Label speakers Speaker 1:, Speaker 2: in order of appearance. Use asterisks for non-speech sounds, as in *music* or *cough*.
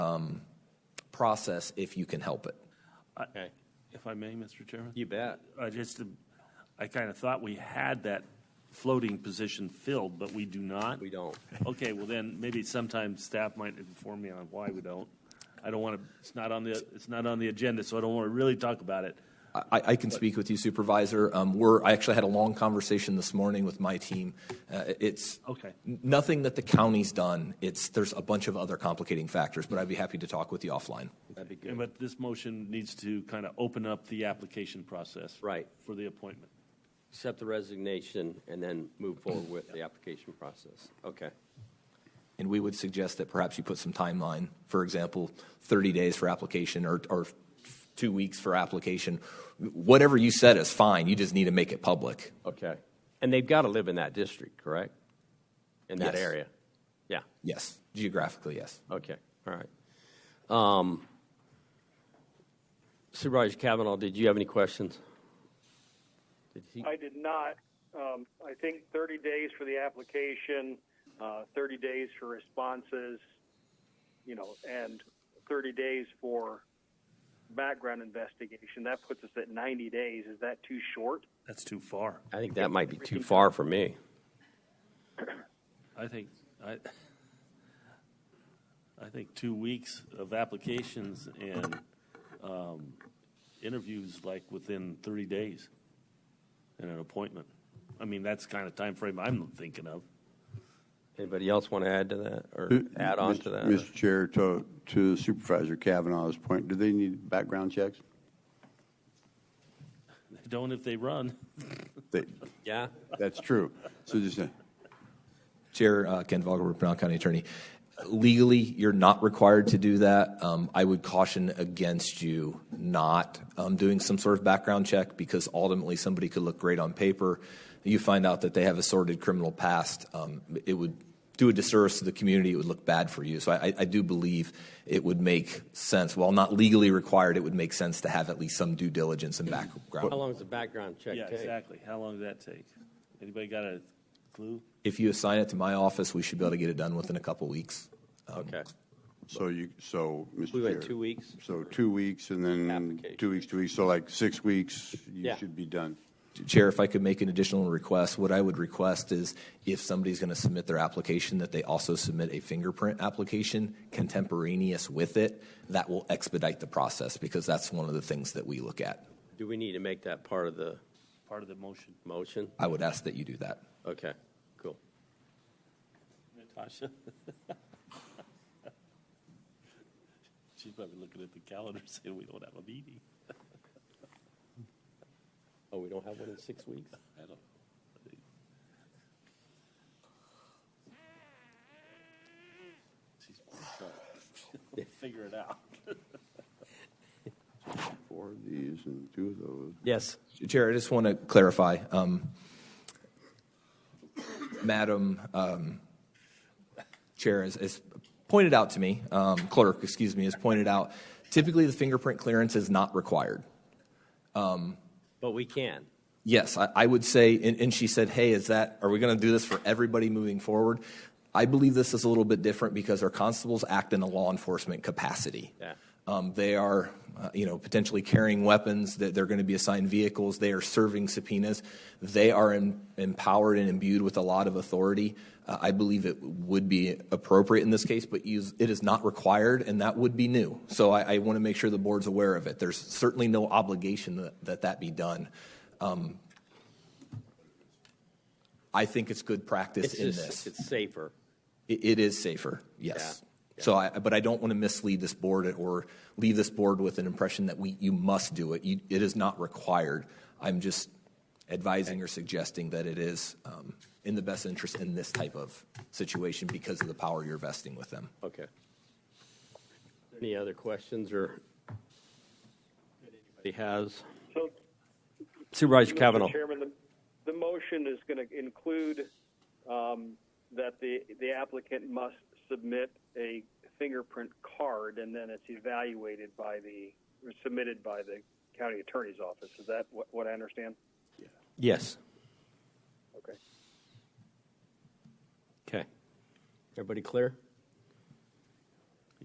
Speaker 1: um, process if you can help it.
Speaker 2: Okay.
Speaker 3: If I may, Mr. Chairman?
Speaker 2: You bet.
Speaker 3: I just, I kind of thought we had that floating position filled, but we do not?
Speaker 2: We don't.
Speaker 3: Okay, well then, maybe sometime staff might inform me on why we don't. I don't want to, it's not on the, it's not on the agenda, so I don't want to really talk about it.
Speaker 1: I, I can speak with you, Supervisor. Um, we're, I actually had a long conversation this morning with my team. Uh, it's
Speaker 3: Okay.
Speaker 1: nothing that the county's done. It's there's a bunch of other complicating factors, but I'd be happy to talk with you offline.
Speaker 2: That'd be
Speaker 3: And
Speaker 2: good.
Speaker 3: But this motion needs to kind of open up the application process.
Speaker 2: Right.
Speaker 3: For the appointment.
Speaker 2: Accept the resignation and then move forward with the application process. Okay.
Speaker 1: And we would suggest that perhaps you put some timeline, for example, 30 days for application or, or two weeks for application. Whatever you said is fine. You just need to make it public.
Speaker 2: Okay. And they've got to live in that district, correct? In that
Speaker 1: Yes.
Speaker 2: area? Yeah.
Speaker 1: Yes, geographically, yes.
Speaker 2: Okay. All right. Um, Supervisor Kavanaugh, did you have any questions? Did he?
Speaker 4: I did not. Um, I think 30 days for the application, uh, 30 days for responses, you know, and 30 days for background investigation. That puts us at 90 days. Is that too short?
Speaker 3: That's too far.
Speaker 2: I think that might be too far for me.
Speaker 3: I think, I, I think two weeks of applications and um, interviews like within 30 days and an appointment. I mean, that's the kind of time frame I'm thinking of.
Speaker 2: Anybody else want to add to that or add on to that?
Speaker 5: Mr. Chair, to, to Supervisor Kavanaugh's point, do they need background checks?
Speaker 3: They Don't if they run.
Speaker 5: They,
Speaker 2: Yeah.
Speaker 5: that's true. So just, uh,
Speaker 1: Chair uh, Ken Vogel, Pinal County Attorney. Legally, you're not required to do that. Um, I would caution against you not um, doing some sort of background check because ultimately somebody could look great on paper. You find out that they have a sordid criminal past. Um, it would do a disservice to the community. It would look bad for you. So I, I- I do believe it would make sense. While not legally required, it would make sense to have at least some due diligence and background.
Speaker 2: How long does the background check
Speaker 3: Yeah,
Speaker 2: take?
Speaker 3: exactly. How long did that take? Anybody got a clue?
Speaker 1: If you assign it to my office, we should be able to get it done within a couple weeks.
Speaker 2: Okay.
Speaker 5: so you, so, Mr.
Speaker 2: We
Speaker 5: Chair.
Speaker 2: went two weeks.
Speaker 5: So two weeks and then
Speaker 2: Application.
Speaker 5: two weeks, two weeks, so like six weeks, you
Speaker 2: Yeah.
Speaker 5: should be done.
Speaker 1: Chair, if I could make an additional request, what I would request is if somebody's going to submit their application, that they also submit a fingerprint application contemporaneous with it. That will expedite the process because that's one of the things that we look at.
Speaker 2: Do we need to make that part of the
Speaker 3: Part of the motion.
Speaker 2: motion?
Speaker 1: I would ask that you do that.
Speaker 2: Okay, cool.
Speaker 3: Natasha? *laughs* She's probably looking at the calendar *laughs* saying we don't have a meeting.
Speaker 2: Oh, we don't have one in six weeks?
Speaker 3: I don't. *laughs* She's trying to figure it out.
Speaker 5: Four of these and two of those.
Speaker 2: Yes.
Speaker 1: Chair, I just want to clarify. um, Madam um, Chair has- has pointed out to me, um, clerk, excuse me, has pointed out, typically the fingerprint clearance is not required.
Speaker 2: But we can.
Speaker 1: Yes, I, I would say, and, and she said, hey, is that, are we going to do this for everybody moving forward? I believe this is a little bit different because our constables act in a law enforcement capacity.
Speaker 2: Yeah.
Speaker 1: Um, they are, uh, you know, potentially carrying weapons, that they're going to be assigned vehicles, they are serving subpoenas. They are em- empowered and imbued with a lot of authority. Uh, I believe it would be appropriate in this case, but use, it is not required, and that would be new. So I, I want to make sure the board's aware of it. There's certainly no obligation that that, that be done. Um, I think it's good practice
Speaker 2: It's
Speaker 1: in
Speaker 2: just,
Speaker 1: this.
Speaker 2: it's safer.
Speaker 1: It, it is safer, yes. So I, but I don't want to mislead this board or leave this board with an impression that we, you must do it. You, it is not required. I'm just advising or suggesting that it is um, in the best interest in this type of situation because of the power you're vesting with them.
Speaker 2: Okay. Any other questions or that anybody has?
Speaker 4: So,
Speaker 2: Supervisor Kavanaugh.
Speaker 4: Mr. Chairman, the, the motion is going to include um, that the, the applicant must submit a fingerprint card and then it's evaluated by the, or submitted by the county attorney's office. Is that what, what I understand?
Speaker 2: Yes.
Speaker 4: Okay.
Speaker 2: Okay. Everybody clear?